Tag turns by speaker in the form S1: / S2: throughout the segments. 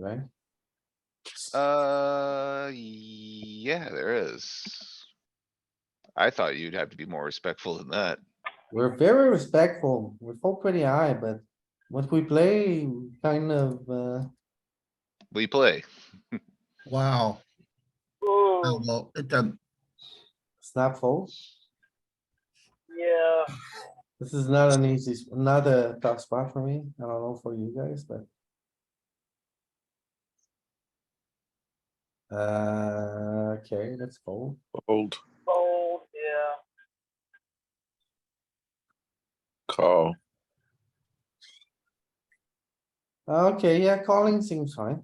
S1: right?
S2: Uh, yeah, there is. I thought you'd have to be more respectful than that.
S1: We're very respectful. We fold pretty high, but what we play kind of, uh,
S2: We play.
S3: Wow, Oh,
S4: Ooh,
S3: well, it doesn't,
S1: snap fold.
S4: yeah.
S1: This is not an easy, s- not a tough spot for me. I don't know for you guys, but. Uh, okay, let's fold.
S5: Old
S4: Fold, yeah.
S5: call.
S1: Okay, yeah, calling seems fine.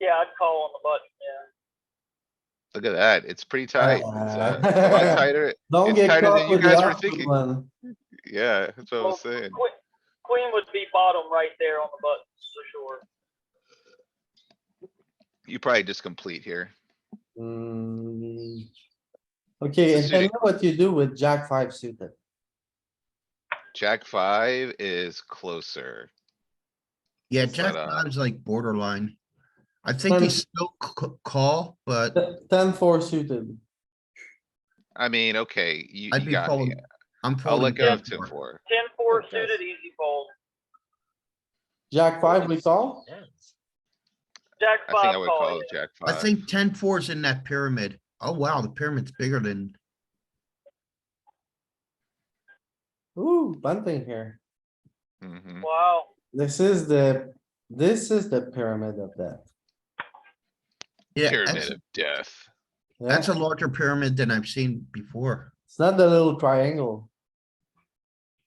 S4: Yeah, I'd call on the button, yeah.
S2: Look at that. It's pretty tight. It's, uh, a lot
S1: Uh,
S2: tighter.
S1: Don't
S2: It's
S1: get
S2: tighter
S1: caught
S2: than you
S1: with the
S2: guys were
S1: awkward
S2: thinking.
S1: one.
S2: Yeah, that's what I
S4: Well,
S2: was saying.
S4: que- Queen would be bottom right there on the button, for sure.
S2: You probably just complete here.
S1: Mm. Okay, and tell me
S2: suited-
S1: what you do with jack five suited.
S2: Jack five is closer.
S3: yeah,
S2: It's
S3: Jack
S2: not a-
S3: five's like borderline. I think they
S1: Um,
S3: still c- c- call, but
S1: Ten ten four suited.
S2: I mean, okay, you,
S3: I'd
S2: you
S3: be
S2: got me.
S3: folding.
S2: I'll
S3: I'm
S2: let
S3: folding.
S2: go of
S3: ten
S2: ten
S3: four.
S2: four.
S4: Ten four
S1: Okay.
S4: suited, easy fold.
S1: Jack five, we call?
S4: Jack
S2: I think
S4: five
S2: I would
S4: call,
S2: call
S4: yeah.
S2: it Jack
S3: I
S2: five.
S3: think ten four's in that pyramid. Oh, wow, the pyramid's bigger than,
S1: Ooh, bunting here.
S2: Mhm.
S4: Wow,
S1: This is the, this is the pyramid of that.
S3: yeah,
S2: Pyramid
S3: that's,
S2: of death.
S1: Yeah,
S3: that's a larger pyramid than I've seen before.
S1: it's not the little triangle.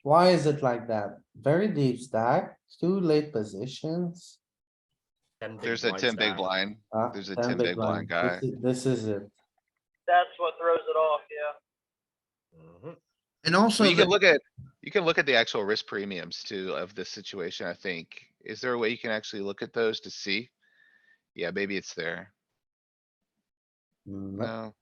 S1: Why is it like that? Very deep stack, two late positions.
S2: There's a ten big blind.
S1: uh,
S2: There's a 10
S1: ten
S2: big blind guy.
S1: This is- This is it.
S4: that's what throws it off, yeah.
S3: And also,
S2: Well, you
S3: the-
S2: can look at, you can look at the actual risk premiums too of this situation, I think. Is there a way you can actually look at those to see? Yeah, maybe it's there.
S3: Uh,
S1: Mm,
S2: No.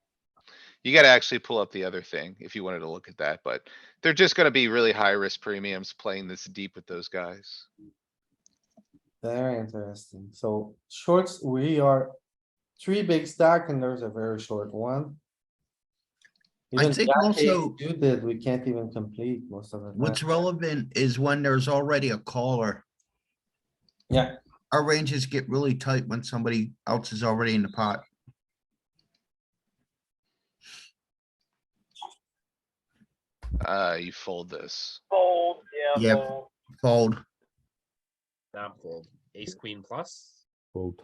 S2: You gotta actually pull up the other thing if you wanted to look at that, but they're just gonna be really high risk premiums playing this deep with those guys.
S1: Very interesting. So shorts, we are three big stack and there's a very short one.
S3: I
S1: Even
S3: think
S1: jack eight
S3: also-
S1: suited, we can't even complete most of the
S3: what's
S1: time.
S3: relevant is when there's already a caller.
S1: Yeah.
S3: Our ranges get really tight when somebody else is already in the pot.
S2: Uh, you fold this.
S4: Fold, yeah,
S3: Yep.
S4: fold.
S3: Fold.
S6: Not fold. Ace queen plus.
S5: Old.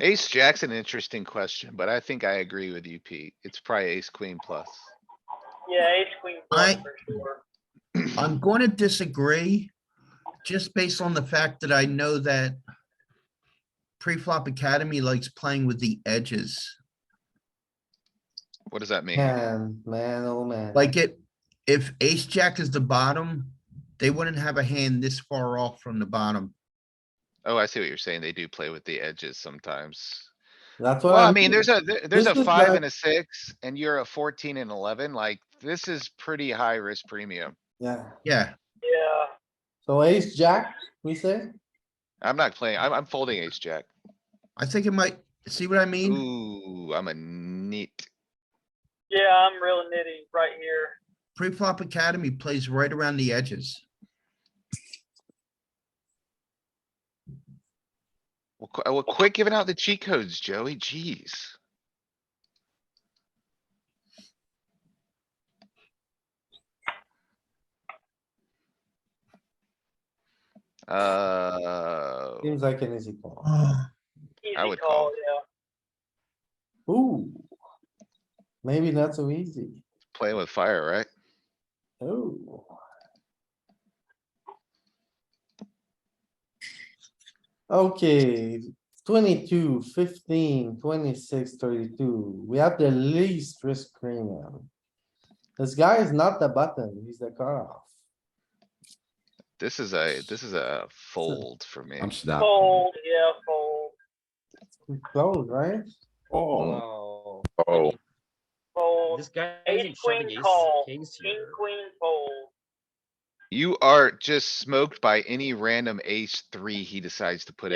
S2: Ace Jack's an interesting question, but I think I agree with you, Pete. It's probably ace queen plus.
S4: Yeah, ace queen plus
S3: I-
S4: for sure.
S3: I'm going to disagree, just based on the fact that I know that pre-flop academy likes playing with the edges.
S2: What does that mean?
S1: Man, man, oh man.
S3: Like it, if ace jack is the bottom, they wouldn't have a hand this far off from the bottom.
S2: Oh, I see what you're saying. They do play with the edges sometimes.
S1: That's what.
S2: Well, I
S1: I'm
S2: mean,
S1: saying.
S2: there's a, there- there's a
S1: This is
S2: five
S1: like-
S2: and a six and you're a fourteen and eleven, like this is pretty high risk premium.
S1: Yeah,
S3: Yeah,
S4: Yeah,
S1: so ace, jack, we say?
S2: I'm not playing, I'm, I'm folding ace jack.
S3: I think it might, see what I mean?
S2: Ooh, I'm a neat.
S4: yeah, I'm real nitty right here.
S3: Pre-flop academy plays right around the edges.
S2: Well, qu- well, quit giving out the cheat codes, Joey, jeez. Uh,
S1: Seems like an easy call.
S2: I
S4: Easy
S2: would call.
S4: call, yeah.
S1: Ooh. Maybe not so easy.
S2: playing with fire, right?
S1: Oh. Okay, 22, 15, 26, 32. We have the least risk premium. This guy is not the button, he's the cutoff.
S2: This is a, this is a fold for me.
S7: I'm snapping.
S4: Fold, yeah, fold,
S1: It's Close, right?
S5: Oh,
S6: Oh,
S5: oh,
S4: fold.
S6: this guy isn't shoving
S4: Ace queen
S6: aces and
S4: call,
S6: kings
S4: King,
S6: here.
S4: queen, fold.
S2: You are just smoked by any random ace three he decides to put in.